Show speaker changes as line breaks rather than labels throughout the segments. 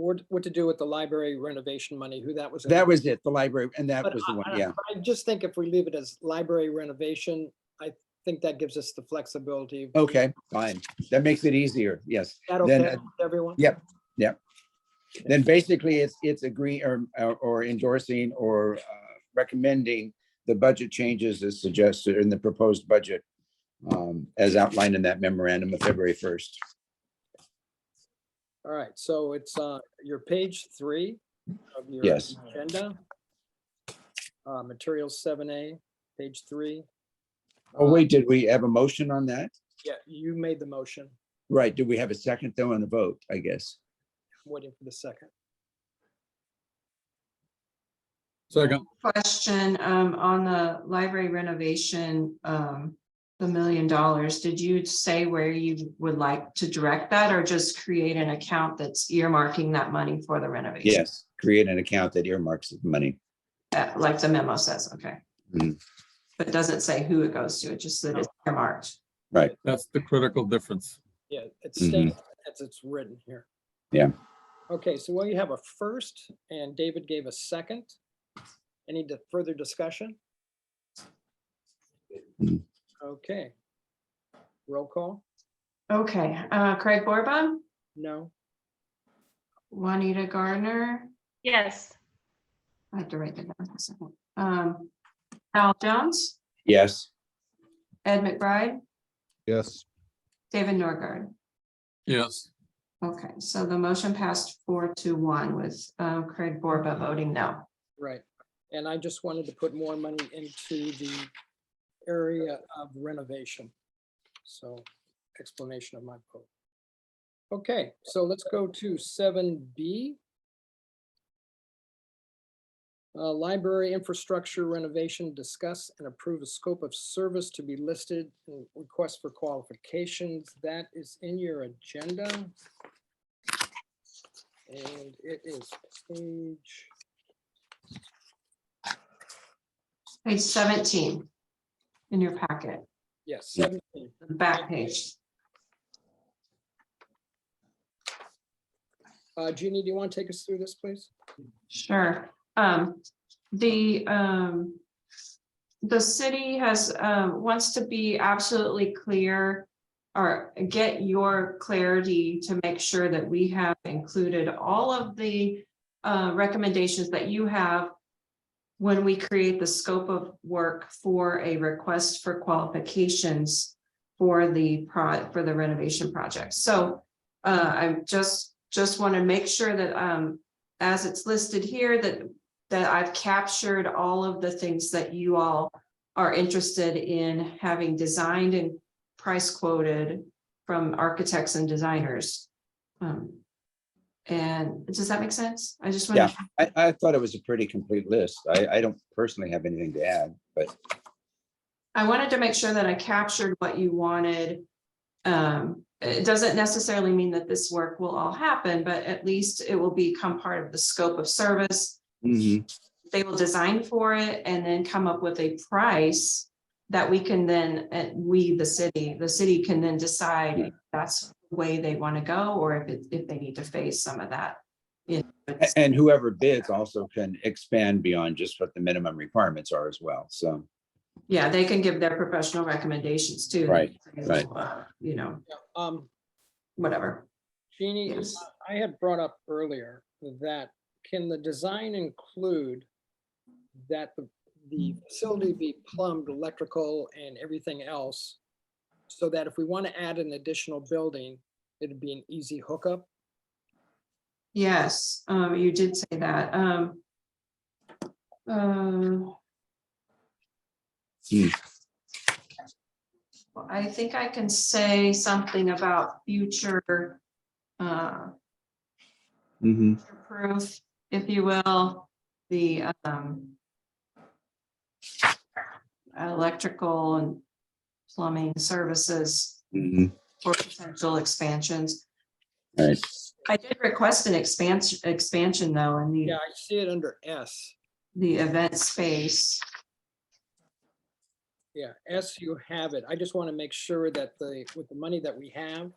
what, what to do with the library renovation money, who that was. in.
That was it, the library, and that
But
was the
I-
one,
I-
yeah.
I just think if we leave it as library renovation, I think that gives us the flexibility. Is
Okay, fine. That makes it easier, yes.
That
then,
okay
uh,
with everyone?
yeah. Then basically, it's, it's agree or, or endorsing or uh, recommending the budget changes as suggested in the proposed budget um, as outlined in that memorandum of February 1st.
All right, so it's, uh, your page three of your
Yes.
agenda. Uh, materials seven A, page three.
Oh,
Uh,
wait, did we have a motion on that?
Yeah, you made the motion,
Right, do we have a second though on the vote, I guess?
waiting for the second.
Second,
Question um, on the library renovation, um, the million dollars, did you say where you would like to direct that or just create an account that's earmarking that money for the renovation?
Yes, create an account that earmarks the money.
Uh, Like the memo says, okay.
Mhm.
But it doesn't say who it goes to, it just that it's earmarked.
that's the critical difference.
Yeah, it's
Mhm.
stated as it's written here.
Yeah.
Okay, so well, you have a first and David gave a second. Any di- further discussion?
Mm.
Okay. Roll call?
Okay, uh, Craig Borba,
No?
Juanita Gardner,
Yes,
I have to write that down for a second. Um, Al Jones,
Yes,
Ed McBride,
yes,
David Norgard.
Yes,
Okay, so the motion passed four to one with uh, Craig Borba voting no.
Right. And I just wanted to put more money into the area of renovation. So explanation of my vote. Okay, so let's go to seven B. Uh, Library infrastructure renovation, discuss and approve a scope of service to be listed, and request for qualifications. That is in your agenda. And it is page.
Page seventeen in your packet,
Yes,
Yeah.
17.
the back page.
Uh, Jeannie, do you want to take us through this, please?
Sure. Um, the, um, the city has, um, wants to be absolutely clear or get your clarity to make sure that we have included all of the, uh, recommendations that you have when we create the scope of work for a request for qualifications for the pro, for the renovation project. So, uh, I'm just, just want to make sure that, um, as it's listed here, that, that I've captured all of the things that you all are interested in having designed and price quoted from architects and designers. Um, And does that make sense? I just want,
I, I thought it was a pretty complete list. I, I don't personally have anything to add, but
I wanted to make sure that I captured what you wanted. Um, it doesn't necessarily mean that this work will all happen, but at least it will become part of the scope of service
Mhm,
they will design for it and then come up with a price that we can then, uh, we, the city, the city can then decide if that's the way they want to go or if it, if they need to face some of that. you know,
a- and whoever bids also can expand beyond just what the minimum requirements are as well, so.
Yeah, they can give their professional recommendations too.
Right, right.
You know,
Yeah, Um,
whatever.
Jeannie,
Yes.
I had brought up earlier that can the design include that the, the facility be plumbed, electrical and everything else? So that if we want to add an additional building, it'd be an easy hookup?
Yes, um, you did say that, um. um,
Hmm.
Well, I think I can say something about future, uh, Mm-hmm.
mhm.
proof, if you will, the, um, electrical and plumbing services
Mhm.
for potential expansions.
All right.
I did request an expansion, expansion though, in the
Yeah, I see it under S.
the event space.
Yeah, S you have it. I just want to make sure that the, with the money that we have,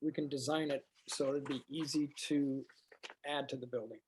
we can design it so it'd be easy to add to the building.